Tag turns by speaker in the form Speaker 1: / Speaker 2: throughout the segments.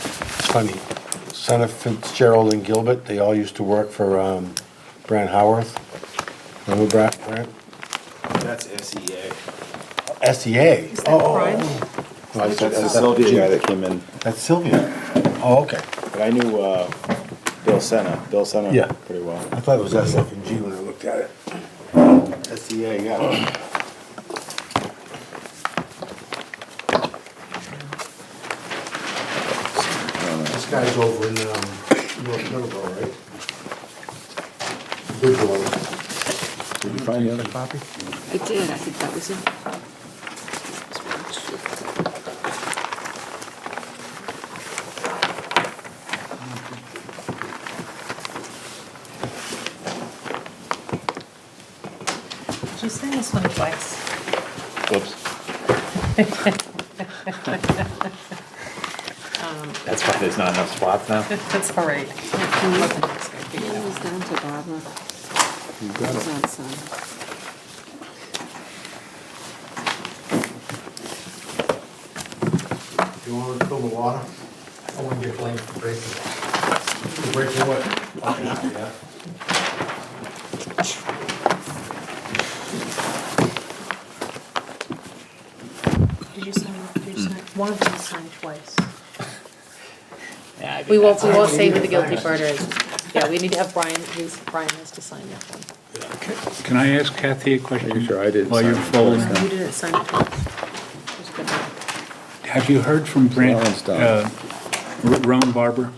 Speaker 1: funny. Son of Fitzgerald and Gilbert, they all used to work for, um, Brant Howarth. Remember Brant, Brant?
Speaker 2: That's E SEA.
Speaker 1: SEA.
Speaker 3: Is that
Speaker 1: Oh,
Speaker 3: crime?
Speaker 1: no, I said-
Speaker 2: That's the
Speaker 1: that's
Speaker 2: Sylvia E guy
Speaker 1: Sylvia.
Speaker 2: that came in,
Speaker 1: That's Sylvia. Oh, okay.
Speaker 2: but I knew, uh, Bill Senna, Bill
Speaker 1: Yeah.
Speaker 2: Senna pretty well.
Speaker 1: I thought it was SF and G when I looked at it. SEA, yeah.
Speaker 4: This guy's over in, um, North Middleborough, right? Bridgewater.
Speaker 2: Did you find the other copy?
Speaker 3: I did, I think that was it. Did you send this one twice?
Speaker 2: Whoops,
Speaker 5: That's why there's not enough spots now?
Speaker 3: That's all right.
Speaker 6: It was down to Barbara. It was on some.
Speaker 4: You wanna fill the water? I wanna get blamed for breaking it. For breaking what? Yeah.
Speaker 3: Did you sign, did you sign, one of them signed twice.
Speaker 5: Yeah, I think
Speaker 3: We won't,
Speaker 5: that's-
Speaker 3: we won't say who the guilty part is. Yeah, we need to have Brian, who's- Brian has to sign that one.
Speaker 7: Can I ask Kathy a question?
Speaker 2: Making sure I didn't
Speaker 7: While you're
Speaker 2: sign it
Speaker 7: folding,
Speaker 2: first,
Speaker 3: You didn't sign it twice. Just good luck.
Speaker 7: have you heard from Brent,
Speaker 2: one's done.
Speaker 7: uh, R- Roan Barber?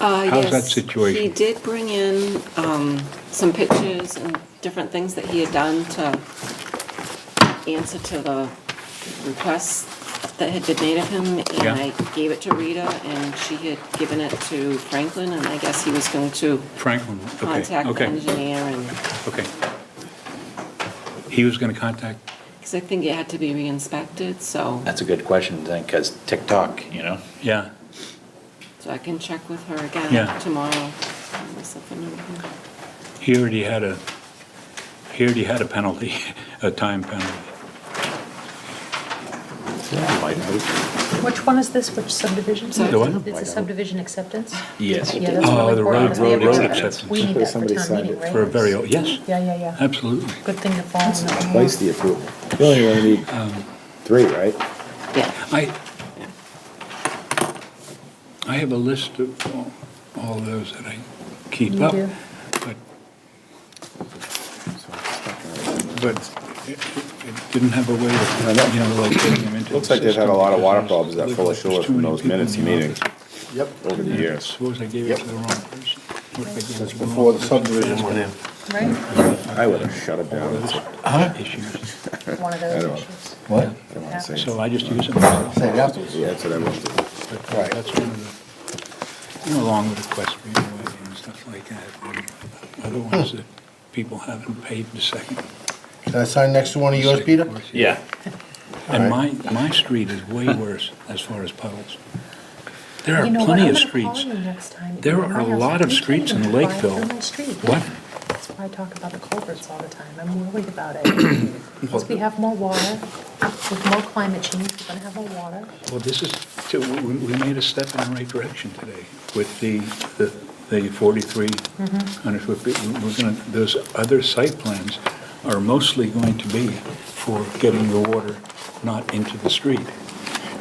Speaker 6: Uh,
Speaker 7: How's that
Speaker 6: yes,
Speaker 7: situation?
Speaker 6: He did bring in, um, some pictures and different things that he had done to answer to the requests that had been made of him.
Speaker 7: Yeah.
Speaker 6: And I gave it to Rita and she had given it to Franklin and I guess he was going to
Speaker 7: Franklin, okay,
Speaker 6: contact the
Speaker 7: okay,
Speaker 6: engineer and,
Speaker 7: okay. He was gonna contact,
Speaker 6: because I think it had to be re-inspected, so,
Speaker 5: That's a good question, then, because TikTok, you know?
Speaker 7: yeah,
Speaker 6: so I can check with her
Speaker 7: Yeah.
Speaker 6: again tomorrow. Unless I can remember.
Speaker 7: he already had a, he already had a penalty, a time penalty.
Speaker 2: Hmm.
Speaker 8: Which one is this, which subdivision?
Speaker 6: The
Speaker 7: what?
Speaker 8: It's a subdivision acceptance?
Speaker 5: Yes.
Speaker 8: Yeah, that's
Speaker 7: Oh,
Speaker 8: really
Speaker 7: the
Speaker 8: important.
Speaker 7: road-
Speaker 8: That's
Speaker 7: road-
Speaker 8: really
Speaker 7: road
Speaker 8: important.
Speaker 7: acceptance.
Speaker 8: We need that for
Speaker 2: Somebody
Speaker 8: town
Speaker 2: signed
Speaker 8: meeting,
Speaker 2: it
Speaker 8: right?
Speaker 7: For a very, old- yes,
Speaker 8: Yeah, yeah, yeah.
Speaker 7: absolutely.
Speaker 8: Good thing to follow.
Speaker 2: Twice the approval. You only really need
Speaker 7: Um,
Speaker 2: three, right?
Speaker 6: Yeah.
Speaker 7: I, I have a list of all- all those that I keep
Speaker 8: You
Speaker 7: up,
Speaker 8: do?
Speaker 7: but, but it it didn't have a way
Speaker 2: I
Speaker 7: of,
Speaker 2: know.
Speaker 7: you know, like getting them into.
Speaker 2: Looks
Speaker 7: the
Speaker 2: like they've had a
Speaker 7: system
Speaker 2: lot of water
Speaker 7: because
Speaker 2: problems at
Speaker 7: there's
Speaker 2: Fuller
Speaker 7: too
Speaker 2: Shore from
Speaker 7: many
Speaker 2: those
Speaker 7: people in
Speaker 2: minutes
Speaker 7: the
Speaker 2: meetings
Speaker 7: office.
Speaker 2: Yep. Over the years.
Speaker 7: Suppose I gave it to the wrong person. What if I gave it
Speaker 1: That's
Speaker 7: to the
Speaker 1: before the
Speaker 7: wrong
Speaker 1: subdivision went in.
Speaker 8: Right,
Speaker 2: I would have shut it down.
Speaker 7: person?
Speaker 1: Huh?
Speaker 7: Issues.
Speaker 8: one of
Speaker 2: I
Speaker 8: those
Speaker 2: don't-
Speaker 8: issues.
Speaker 1: What?
Speaker 2: I don't wanna say it.
Speaker 7: So I just use them.
Speaker 1: Say it afterwards.
Speaker 2: Yeah, that's what I want to do.
Speaker 7: But
Speaker 1: Right.
Speaker 7: that's one of the, you know, along with equestrian way and stuff like that. and Other
Speaker 1: Hmm.
Speaker 7: ones that people haven't paved a second.
Speaker 1: Can I sign next to one of yours,
Speaker 7: second
Speaker 1: Peter?
Speaker 7: course yet.
Speaker 5: Yeah.
Speaker 7: And my, my street is way worse as far as puddles. There
Speaker 8: You
Speaker 7: are
Speaker 8: know what,
Speaker 7: plenty
Speaker 8: I'm
Speaker 7: of
Speaker 8: gonna call
Speaker 7: streets.
Speaker 8: you next time to
Speaker 7: There
Speaker 8: go to
Speaker 7: are a
Speaker 8: my house.
Speaker 7: lot of
Speaker 8: You can't
Speaker 7: streets in
Speaker 8: even
Speaker 7: Lakeville.
Speaker 8: drive through my street, yeah.
Speaker 7: What?
Speaker 8: That's why I talk about the culverts all the time, I'm worried about it. Because we have more water, with more climate change, we're gonna have more water.
Speaker 7: Well, this is, so we, we we made a step in the right direction today with the, the the 4,300 foot, bit. We- we're gonna, those other site plans are mostly going to be for getting the water not into the street.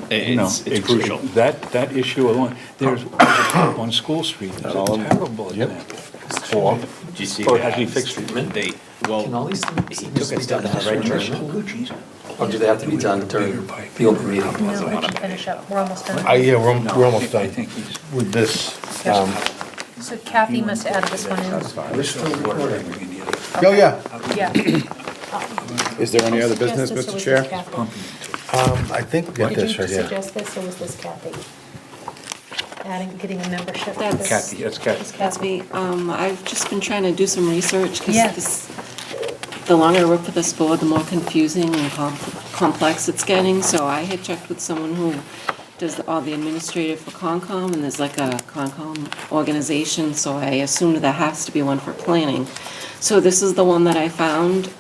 Speaker 7: You know,
Speaker 5: It's, it's crucial. Oh.
Speaker 7: That, that issue alone, there's on School Street, it's
Speaker 2: all
Speaker 7: a
Speaker 2: of them?
Speaker 7: terrible example.
Speaker 5: Or, did you see
Speaker 7: Or
Speaker 5: that?
Speaker 7: has he fixed it?
Speaker 5: They, well,
Speaker 9: Can all these things
Speaker 5: he took
Speaker 9: be
Speaker 5: a
Speaker 9: done
Speaker 5: step in the right
Speaker 9: during
Speaker 5: direction.
Speaker 7: Oh, geez.
Speaker 9: Or do they have to be done during the open meeting
Speaker 8: No,
Speaker 9: laws?
Speaker 8: we should finish up, we're almost done.
Speaker 1: I, yeah, we're, al- we're almost
Speaker 7: I
Speaker 1: done
Speaker 7: think he's.
Speaker 1: with this. Um,
Speaker 8: So Kathy must add this one in.
Speaker 1: Oh, yeah.
Speaker 8: Yeah. Uh,
Speaker 2: Is there any other business, Mr. Chair?
Speaker 1: Um, I think
Speaker 8: Did
Speaker 1: get this
Speaker 8: you
Speaker 1: right here.
Speaker 8: suggest this, or was this Kathy? Adding, getting a membership? to
Speaker 6: That's-
Speaker 8: this?
Speaker 7: Kathy, that's Kathy.
Speaker 8: This
Speaker 6: That's me. Um, I've just been trying to do some research because
Speaker 8: Yeah.
Speaker 6: this, the longer I work for this board, the more confusing and com- complex it's getting. So I had checked with someone who does all the administrative for Concom, and there's like a Concom organization, so I assumed there has to be one for planning. So this is the one that I found.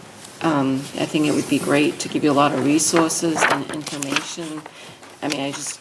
Speaker 6: Um, I think it would be great to give you a lot of resources and information. I mean, I just